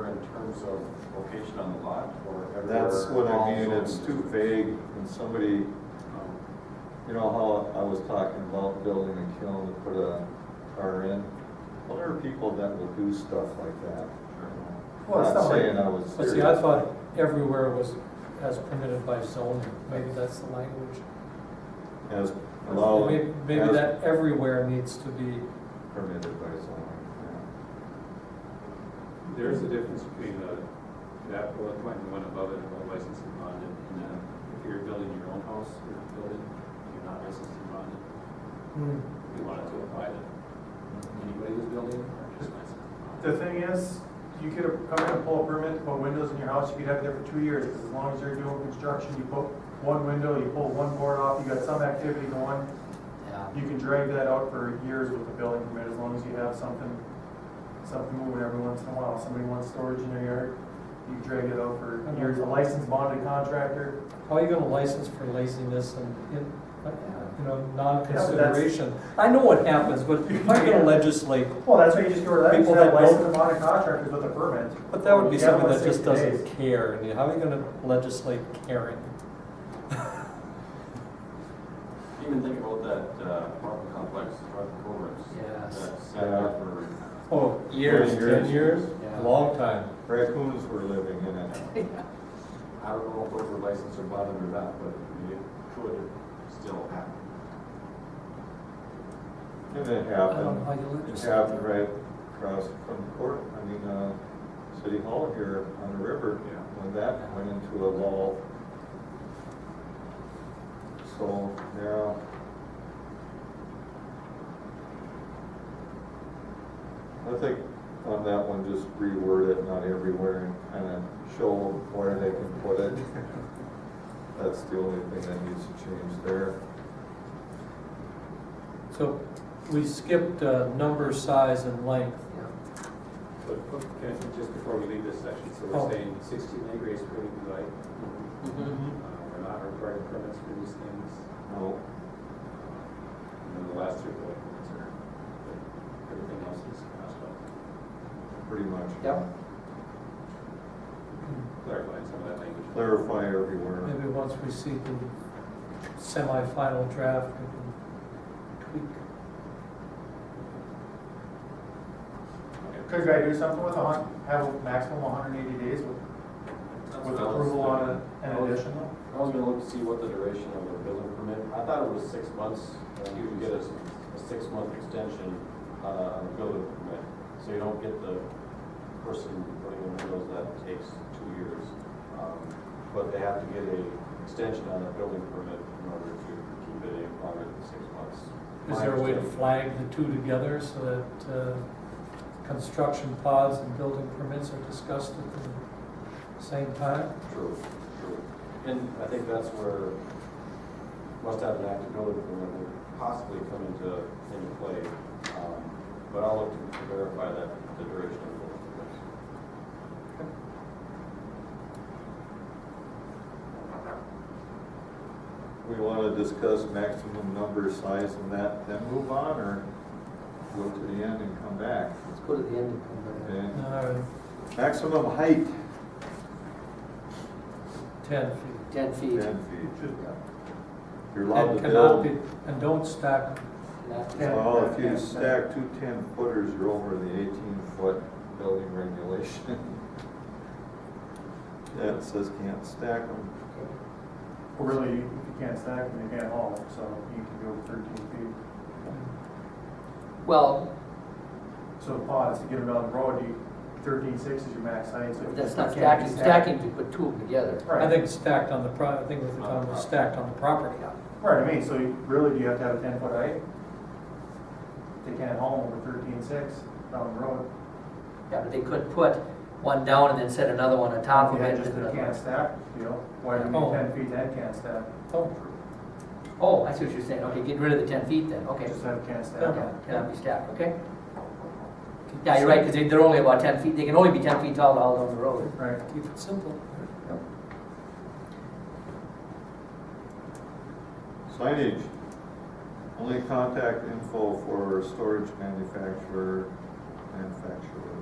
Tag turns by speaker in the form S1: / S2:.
S1: terms of location on the lot or everywhere?
S2: That's what I mean,
S1: also?
S2: it's too vague, and somebody,
S1: Um,
S2: you know how I was talking about building a kiln to put a car in? Well, there are people that will do stuff like that.
S3: Well,
S2: Not
S3: it's not like-
S2: saying I was.
S3: But see, I thought everywhere was as permitted by zoning, maybe that's the language.
S2: As allowed.
S3: Maybe maybe
S2: as
S3: that everywhere needs to be,
S2: Permitted by zoning,
S4: There is a difference between uh, that bullet point and the one above it about licensed and bonded. And uh, if you're building your own house, you're building, you're not licensed and bonded.
S3: hmm,
S4: We wanted to apply to anybody who's building or just licensed. and bonded.
S5: The thing is, you could come in and pull a permit to put windows in your house, you could have it there for two years, because as long as you're doing construction, you put one window, you pull one board off, you got some activity going,
S6: Yeah,
S5: you can drag that out for years with a building permit, as long as you have something, something moving every once in a while, somebody wants storage in their yard, you can drag it out for years, a licensed bonded contractor,
S3: how are you gonna license for laziness and, in- you know,
S5: that's-
S3: non-consideration? I know what happens, but you're not gonna legislate,
S5: well, that's why you just go to that,
S3: People
S5: you have
S3: that don't-
S5: licensed bonded contractors with a permit.
S3: but that would be
S5: You have
S3: something
S5: one
S3: that just
S5: 60
S3: doesn't
S5: days.
S3: care, and how are you gonna legislate caring?
S1: Even think about that uh, apartment complex, North Cobras.
S6: Yes.
S1: That's set up for,
S3: Oh,
S2: Years.
S3: Ten years,
S6: Yeah.
S3: long time.
S2: yeah. Raccoons were living in it.
S1: I don't know if those were licensed or bonded or not, but it could still happen.
S2: And it
S3: I don't know how
S2: happened,
S3: you
S2: it
S3: legislate.
S2: happened right across from court, I mean, uh, City Hall here on the river.
S1: Yeah.
S2: When that went into a lull. So, yeah. I think on that one, just reword it, not everywhere, and kind of show where they can put it. That's the only thing that needs to change there.
S3: So we skipped uh, number, size, and length.
S4: But okay, just before we leave this section, so
S3: Oh.
S4: we're saying sixteen acre is pretty good, like, uh,
S5: Mm-hmm.
S4: we're not requiring permits for these things.
S2: No,
S4: And then the last three bullet points are, but everything else is uh, crossed out.
S2: pretty much.
S6: Yep.
S3: Mm.
S4: Clarifying some of that language.
S2: Clarify everywhere.
S3: Maybe once we see the semifinal draft, we can tweak.
S5: Could I do something with a hun, have a maximum one hundred and eighty days with, with approval on a- an addition?
S1: I was gonna look to see what the duration of the building permit, I thought it was six months, and you could get a, s- a six-month extension, uh, on the building permit. So you don't get the person putting in windows that takes two years. Um, But they have to get a extension on that building permit in order to keep it in longer than six months.
S3: Is there a way to flag the two together so that uh, construction pods and building permits are discussed at the same time?
S1: True, true. And I think that's where must have an active building permit would possibly come into, into play. Um, But I'll look to verify that, the duration of the building permit.
S2: We want to discuss maximum number, size, and that, then move on, or go to the end and come back?
S6: Let's go to the end and come back.
S2: Okay.
S3: Uh,
S2: Maximum height,
S3: Ten feet.
S6: Ten feet.
S2: ten feet. You're allowed
S3: And
S2: to build,
S3: cannot be, and don't stack,
S6: Not-
S5: Yeah.
S2: well, if you stack two ten footers, you're over the eighteen foot building regulation. Yeah, it says can't stack them.
S5: Well, Really, you you can't stack them, you can't haul them, so you can go thirteen feet.
S6: Well,
S5: So the pods, to get them down the road, you, thirteen six is your max height, so.
S6: that's not
S5: it can't be
S6: stacking, stacking, you put two of them together.
S3: I
S5: Right,
S3: think stacked on the pro, I think what they're talking
S6: Uh-huh.
S3: about, stacked on the property.
S5: right, I mean, so you- really, do you have to have a ten foot height? They can't haul them over thirteen six down the road.
S6: Yeah, but they could put one down and then set another one on top of
S5: Yeah,
S6: it.
S5: just
S6: and
S5: they
S6: another
S5: can't
S6: one.
S5: stack, you know, why do you
S3: Oh.
S5: need ten feet and can't stack?
S3: Oh,
S6: Oh, I see what you're saying, okay, get rid of the ten feet then, okay.
S5: Just have can't stack.
S3: Yeah.
S6: Yeah, Cannot be stacked, okay? Yeah, you're right, because they're only about ten feet, they can only be ten feet tall all down the road.
S5: Right,
S3: Keep it simple.
S2: Signage, only contact info for storage manufacturer, manufacturer.